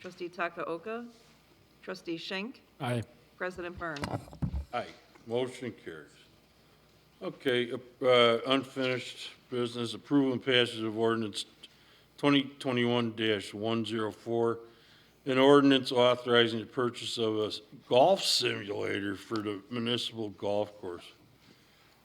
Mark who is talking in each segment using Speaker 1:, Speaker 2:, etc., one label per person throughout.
Speaker 1: Trustee Takaoka, Trustee Schenk,
Speaker 2: Aye.
Speaker 1: President Byrne.
Speaker 3: Aye, motion carries. Okay, uh, unfinished business, approval and passage of ordinance 2021-104, an ordinance authorizing the purchase of a golf simulator for the municipal golf course.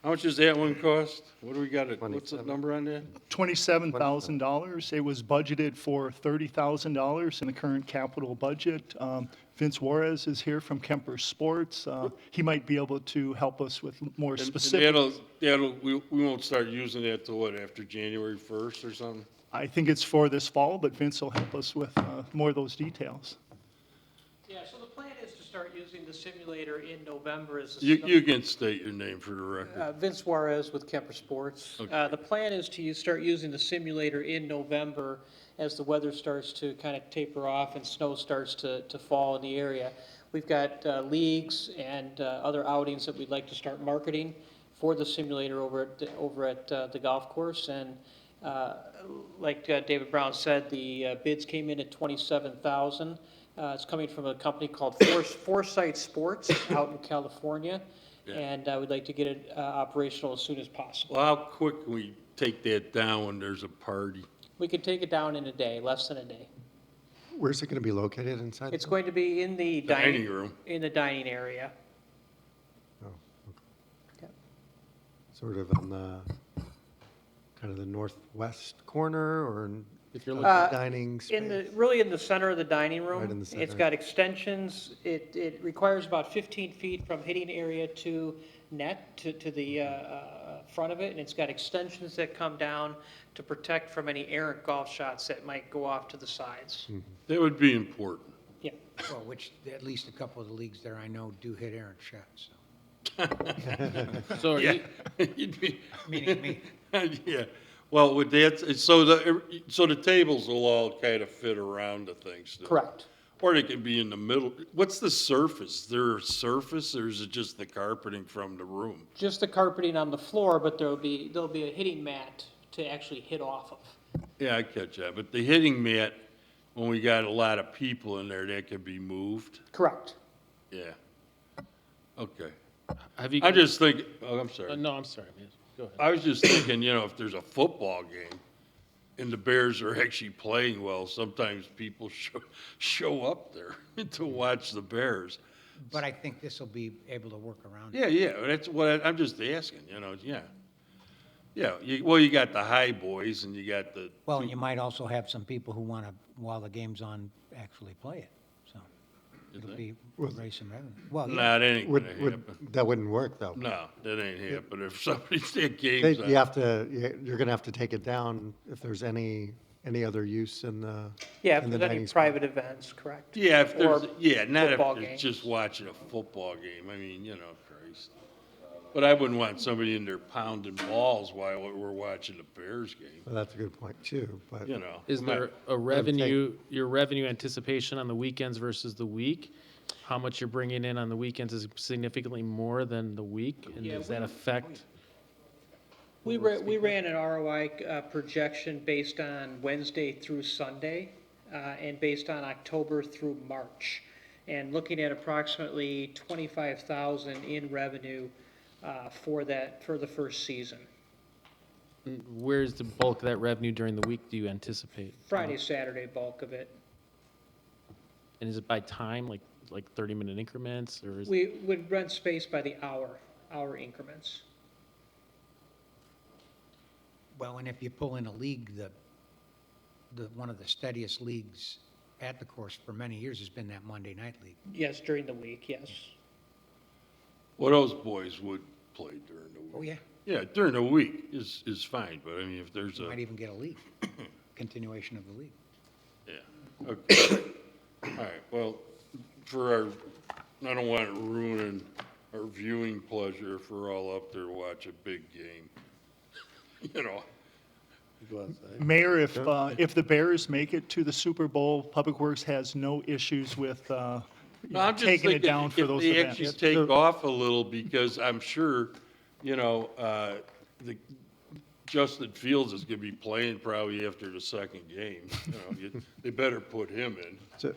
Speaker 3: How much does that one cost? What do we got, it- what's the number on that?
Speaker 4: $27,000. It was budgeted for $30,000 in the current capital budget. Um, Vince Juarez is here from Kemper Sports. Uh, He might be able to help us with more
Speaker 3: And- and
Speaker 4: specific.
Speaker 3: That'll, that'll, we we won't start using that till what, after January 1st or something?
Speaker 4: I think it's for this fall, but Vince will help us with uh, more of those details.
Speaker 5: Yeah, so the plan is to start using the simulator in November as the.
Speaker 3: You
Speaker 5: snow-
Speaker 3: you can state your name for the record.
Speaker 5: Uh, Vince Juarez with Kemper Sports. Uh, The plan is to use- start using the simulator in November as the weather starts to kind of taper off and snow starts to, to fall in the area. We've got uh, leagues and uh, other outings that we'd like to start marketing for the simulator over at, the- over at uh, the golf course. And uh, like uh, David Brown said, the uh, bids came in at 27,000. Uh, It's coming from a company called Fors- Foresight Sports out in California. And I would like to get it uh, operational as soon as possible.
Speaker 3: Well, how quick can we take that down when there's a party?
Speaker 5: We could take it down in a day, less than a day.
Speaker 6: Where's it going to be located inside?
Speaker 5: It's going to be in the
Speaker 3: Dining
Speaker 5: dining,
Speaker 3: room.
Speaker 5: in the dining area.
Speaker 6: Sort of on the, kind of the northwest corner or in-
Speaker 2: If you're
Speaker 6: of
Speaker 2: looking,
Speaker 6: the
Speaker 5: Uh,
Speaker 6: dining space?
Speaker 5: In the, really in the center of the dining room.
Speaker 6: Right in the
Speaker 5: It's
Speaker 6: center.
Speaker 5: got extensions, it, it requires about 15 feet from hitting area to net, to, to the uh, uh, front of it, and it's got extensions that come down to protect from any errant golf shots that might go off to the sides.
Speaker 6: Hmm.
Speaker 3: That would be important.
Speaker 5: Yeah.
Speaker 7: Well, which, at least a couple of the leagues there I know do hit errant shots, so.
Speaker 2: so are you,
Speaker 3: You'd be-
Speaker 7: Meaning me.
Speaker 3: Yeah, well, with that, so the, so the tables will all kind of fit around the things. still.
Speaker 5: Correct.
Speaker 3: Or they could be in the middle. What's the surface? There a surface or is it just the carpeting from the room?
Speaker 5: just the carpeting on the floor, but there'll be, there'll be a hitting mat to actually hit off of.
Speaker 3: Yeah, I catch that, but the hitting mat, when we got a lot of people in there, that could be moved.
Speaker 5: Correct.
Speaker 3: Yeah. Okay.
Speaker 2: have you?
Speaker 3: I just think, oh, I'm sorry.
Speaker 2: Uh, No, I'm sorry, man. Go ahead.
Speaker 3: I was just thinking, you know, if there's a football game and the Bears are actually playing well, sometimes people show, show up there to watch the Bears.
Speaker 7: But I think this will be able to work around it.
Speaker 3: Yeah, yeah, that's what I, I'm just asking, you know, yeah. Yeah, you, well, you got the high boys and you got the,
Speaker 7: Well, and you might also have some people who want to, while the game's on, actually play it, so. It'll be, raise some revenue. Well, yeah,
Speaker 3: nah, that ain't gonna
Speaker 6: Would, would,
Speaker 3: happen.
Speaker 6: that wouldn't work, though.
Speaker 3: No, that ain't happening. If somebody's at
Speaker 6: They-
Speaker 3: games,
Speaker 6: You
Speaker 3: on-
Speaker 6: have to, you- you're going to have to take it down if there's any, any other use in the.
Speaker 5: Yeah,
Speaker 6: in
Speaker 5: if
Speaker 6: the
Speaker 5: there's any
Speaker 6: dining spot.
Speaker 5: private events, correct.
Speaker 3: yeah, if there's,
Speaker 5: Or
Speaker 3: yeah, not if
Speaker 5: football
Speaker 3: they're
Speaker 5: games.
Speaker 3: just watching a football game. I mean, you know, Christ. But I wouldn't want somebody in there pounding balls while we're watching the Bears game.
Speaker 6: Well, that's a good point, too, but.
Speaker 3: you know.
Speaker 2: Is
Speaker 3: my-
Speaker 2: there a revenue, your revenue anticipation on the weekends versus the week? How much you're bringing in on the weekends is significantly more than the week, and
Speaker 5: Yeah,
Speaker 2: does that
Speaker 5: we-
Speaker 2: affect?
Speaker 5: We ran, we ran an ROI uh, projection based on Wednesday through Sunday, uh, and based on October through March, and looking at approximately 25,000 in revenue uh, for that, for the first season.
Speaker 2: Where's the bulk of that revenue during the week do you anticipate?
Speaker 5: Friday, Saturday bulk of it.
Speaker 2: And is it by time, like, like thirty minute increments, or is,
Speaker 5: We would rent space by the hour, hour increments.
Speaker 7: well, and if you pull in a league, the, the, one of the steadiest leagues at the course for many years has been that Monday night league.
Speaker 5: Yes, during the week, yes.
Speaker 3: Well, those boys would play during the
Speaker 7: Oh,
Speaker 3: week.
Speaker 7: yeah,
Speaker 3: Yeah, during the week is, is fine, but I mean, if there's
Speaker 7: you might
Speaker 3: a,
Speaker 7: even get a league, continuation of the league.
Speaker 3: yeah, okay. All right, well, for our, I don't want to ruin our viewing pleasure if we're all up there to watch a big game. You know,
Speaker 4: Mayor, if, uh, if the Bears make it to the Super Bowl, Public Works has no issues with uh, you
Speaker 3: No,
Speaker 4: know,
Speaker 3: I'm just
Speaker 4: taking it
Speaker 3: thinking
Speaker 4: down for those
Speaker 3: If
Speaker 4: events.
Speaker 3: they actually take off a little, because I'm sure, you know, uh, the, Justin Fields is going to be playing probably after the second game. You know, you- They better put him in.
Speaker 6: So-